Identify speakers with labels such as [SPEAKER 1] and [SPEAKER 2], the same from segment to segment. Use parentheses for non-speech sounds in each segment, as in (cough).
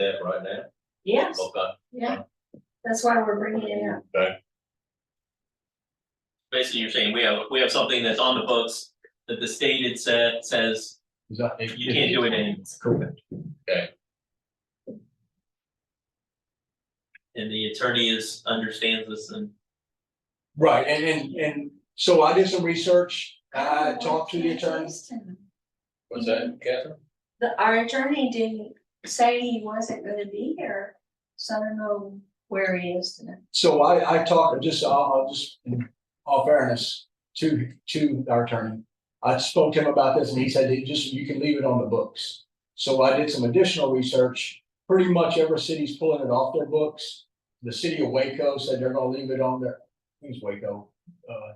[SPEAKER 1] that right now?
[SPEAKER 2] Yes,
[SPEAKER 1] Okay,
[SPEAKER 2] yeah, that's why we're bringing it up.
[SPEAKER 3] basically you're saying we have, we have something that's on the books that the state had said, says
[SPEAKER 4] Is that- it-
[SPEAKER 3] you can't do it anymore.
[SPEAKER 4] Correct.
[SPEAKER 3] And the attorney is, understands this and
[SPEAKER 4] Right, and, and, and so I did some research, I talked to the attorney.
[SPEAKER 1] what's that, Catherine?
[SPEAKER 2] The, our attorney didn't say he wasn't gonna be here, so I don't know where he is today.
[SPEAKER 4] So I, I talked, just, I'll, I'll just, in all fairness, to, to our attorney. I spoke to him about this and he said, "You just, you can leave it on the books. So I did some additional research. Pretty much every city's pulling it off their books. The city of Waco said they're gonna leave it on their, I think it's Waco, uh.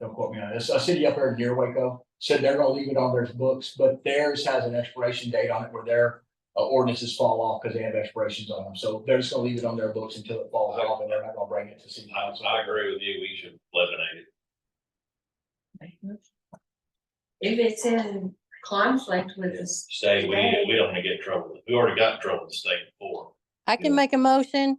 [SPEAKER 4] Don't quote me on this. A city up there near Waco said they're gonna leave it on their books, but theirs has an expiration date on it where their uh, ordinances fall off because they have expirations on them. So they're just gonna leave it on their books until it falls off and they're not gonna bring it to city
[SPEAKER 1] I,
[SPEAKER 4] council.
[SPEAKER 1] I agree with you, we should eliminate it.
[SPEAKER 2] If it's in conflict with this,
[SPEAKER 1] Stay, we, we don't wanna get in trouble, we already got in trouble with the state before.
[SPEAKER 5] I can make a motion.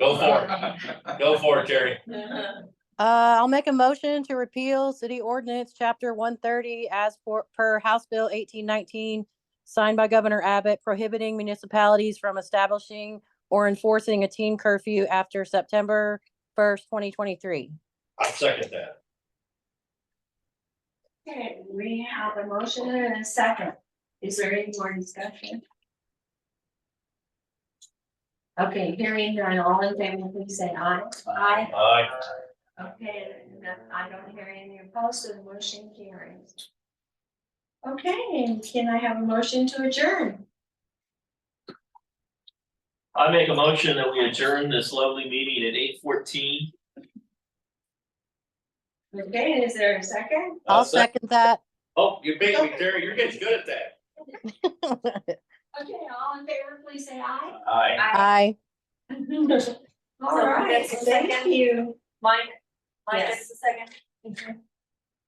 [SPEAKER 1] Go for it, go for it, Terry.
[SPEAKER 2] Uh-huh.
[SPEAKER 5] Uh, I'll make a motion to repeal city ordinance chapter one thirty as for, per House Bill eighteen nineteen, signed by Governor Abbott prohibiting municipalities from establishing or enforcing a teen curfew after September first, twenty twenty-three.
[SPEAKER 1] I second that.
[SPEAKER 2] okay, we have a motion and a second. Is there any more discussion? Okay, hearing none, all in favor, please say aye. Aye.
[SPEAKER 1] Aye.
[SPEAKER 2] Okay, and that- I don't hear any opposed, so the motion carries. Okay, and can I have a motion to adjourn?
[SPEAKER 3] I make a motion that we adjourn this lovely meeting at eight fourteen.
[SPEAKER 2] Okay, and is there a second?
[SPEAKER 5] I'll second that. (laughs)
[SPEAKER 1] Oh, you beat me, Terry, you're getting good at that.
[SPEAKER 2] Okay, all in favor, please say aye.
[SPEAKER 1] Aye.
[SPEAKER 5] Aye.
[SPEAKER 2] (laughs) All right,
[SPEAKER 6] that's the
[SPEAKER 2] thank
[SPEAKER 6] second?
[SPEAKER 2] you.
[SPEAKER 6] Mine, mine is
[SPEAKER 2] Yes.
[SPEAKER 6] the second.